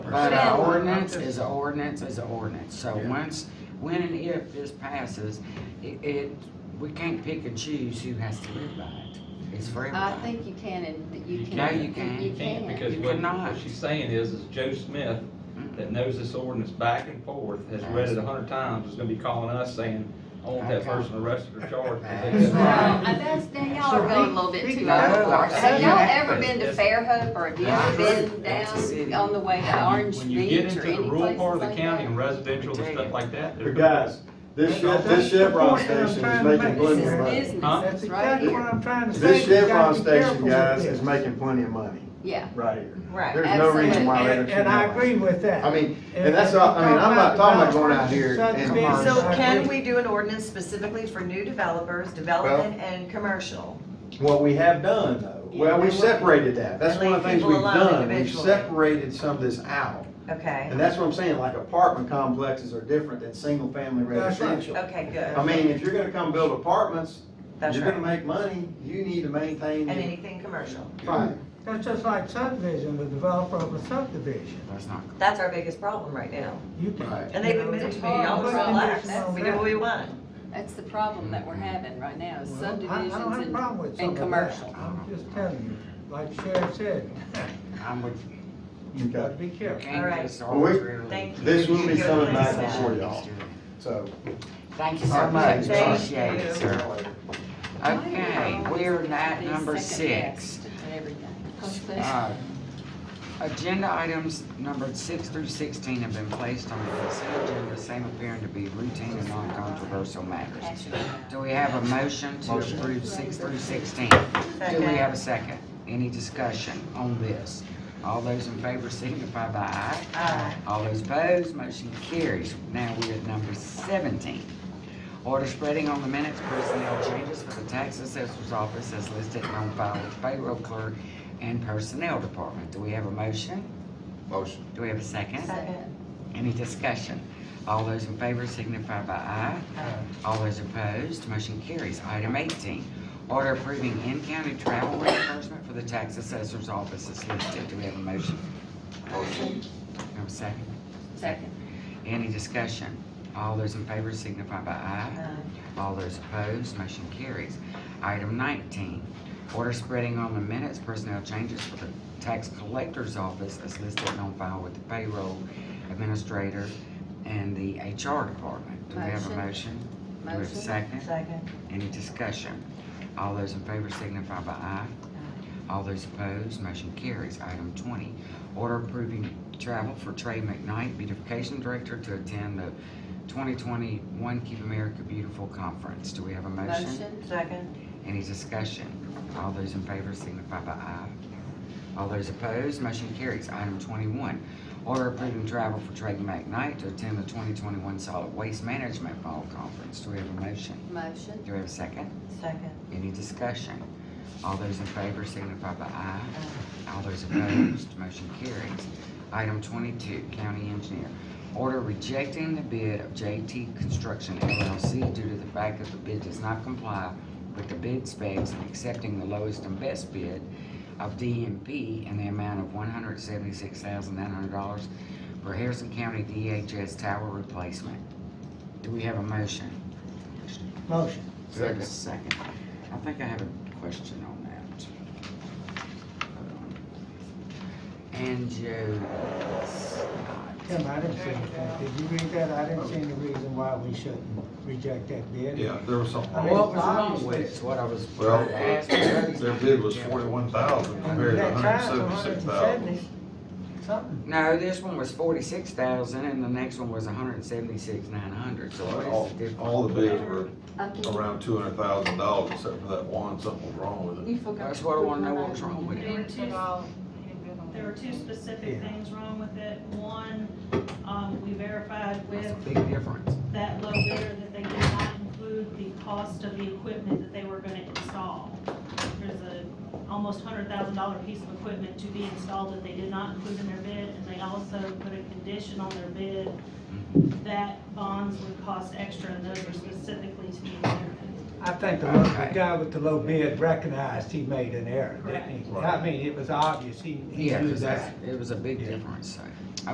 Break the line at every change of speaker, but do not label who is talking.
But
Yeah.
an ordinance is an ordinance is an ordinance, so
Yeah.
once, when and if this passes, it, it, we can't pick and choose who has to live by it. It's for
I
everybody.
think you can and you can.
No, you can't.
You
Can't,
can.
because
You
what,
cannot.
what she's saying is, is Joe Smith, that knows this ordinance back and forth, has read it a hundred times, is gonna be calling us saying, I want that
Okay.
person arrested or charged.
That's
Well, uh, that's, then y'all are
So
going a
he-
little bit
he-
too
No, I
overboard.
said
Have y'all
that.
ever been to
Yes.
Fairhope or have you
I've
ever been
heard that's a city.
down on the way to Orange
When you get
Beach or
into the
any
rural
places
part of the
like
county and
that?
residential and stuff like that.
But guys, this Chev- this Chevron station is making
This
plenty
is
of money.
business,
Huh?
it's
That's
right
exactly what
here.
I'm trying to say.
This
You gotta
Chevron
be
station,
careful with
guys,
this.
is making plenty of money,
Yeah,
right here.
Right,
There's no reason why they
And,
should
and I
not.
agree with that.
I mean, and that's all- I mean, I'm not talking about going out here and-
Subdivision,
So
I
can
agree.
we do an ordinance specifically for new developers, development and commercial?
What we have done, though, well, we separated that, that's one of the things
Leave people
we've
alone
done, we've
individually.
separated some of this out.
Okay,
And that's what I'm saying, like apartment complexes are different than single-family
That's right.
residential.
okay,
I
good,
mean, if you're gonna come build apartments,
that's
you're gonna
right.
make money, you need to maintain.
And
it.
anything commercial,
Right.
That's just like subdivision, the developer of a subdivision,
That's not,
that's our biggest problem right now.
you can.
Right.
And they've admitted to me, y'all just relax, we do what we want.
that's the problem that we're having right now, is
Well, I- I
subdivisions
don't have a
and,
problem with some
and
of that.
commercial.
I'm just telling you, like Sheriff said,
I'm with you.
you gotta
Okay,
be
You
careful.
can't
Alright.
just
Well, we-
arbitrarily-
Thank you.
This will be
Good
coming back
place.
before y'all, so.
Thank you
All
so
right,
much,
thank you.
appreciate it, sir. Okay, we're at number six.
And everything.
Uh, Agenda items numbered six through sixteen have been placed on the consent agenda, same appearing to be routine and non-controversial matters. Do we have a motion to approve six through sixteen? Do we have a second? Any discussion on this? All those in favor signify by aye.
Aye.
All those opposed, motion carries. Now we're at number seventeen. Order spreading on the minutes personnel changes for the tax assessor's office as listed and on file with payroll clerk and personnel department. Do we have a motion?
Motion.
Do we have a second?
Second.
Any discussion? All those in favor signify by aye. All those opposed, motion carries. Item eighteen, order approving in-county travel reimbursement for the tax assessor's office as listed. Do we have a motion?
Motion.
Do we have a second?
Second.
Any discussion? All those in favor signify by aye.
Aye.
All those opposed, motion carries. Item nineteen, order spreading on the minutes personnel changes for the tax collector's office as listed and on file with the payroll administrator and the HR department. Do we have a motion? Do we have a
Motion.
second?
Second,
Any discussion? All those in favor signify by aye. All those opposed, motion carries. Item twenty, order approving travel for Trey McKnight, beautification director, to attend the twenty twenty One Keep America Beautiful Conference. Do we have a motion?
Motion.
second,
Any discussion? All those in favor signify by aye. All those opposed, motion carries. Item twenty-one, order approving travel for Trey McKnight to attend the twenty twenty-one Solid Waste Management Fall Conference. Do we have a motion?
Motion.
Do we have a second?
second,
Any discussion? All those in favor signify by aye. All those opposed, motion carries. Item twenty-two, county engineer. Order rejecting the bid of JT Construction LLC due to the fact that the bid does not comply with the bid specs and accepting the lowest and best bid of DMP in the amount of one hundred seventy-six thousand nine hundred dollars for Harrison County DHS tower replacement. Do we have a motion?
Motion,
Second. Second. I think I have a question on that. And Joe Scott.
Tim, I didn't see anything, did you read that? I didn't see any reason why we shouldn't reject that bid.
Yeah, there was something
I
wrong.
mean,
What was wrong with it, is what I was
Well,
trying to ask.
Their bid was forty-one thousand compared to
That
hundred and
time's
seventy-six thousand.
170, Something,
No, this one was forty-six thousand and the next one was a hundred and seventy-six, nine hundred, so
All,
what is the difference?
all the bids were
Okay.
around two hundred thousand dollars, except for that one, something was wrong with it.
That's what I wanna know what's wrong with it.
There were two, there were two specific
Yeah.
things wrong with it. One, um, we verified
That's a
with
big difference.
that low bidder that they did not include the cost of the equipment that they were gonna install. There's a almost hundred thousand dollar piece of equipment to be installed that they did not include in their bid, and they also put a condition on their bid
Mm-hmm.
that bonds would cost extra, and those were specifically to be verified.
I think the lo- the
Okay.
guy with the low bid recognized he made an error, didn't he?
Right.
I mean, it was obvious, he, he
Yeah,
knew
'cause
that.
that's, it was a big
Yeah.
difference, so.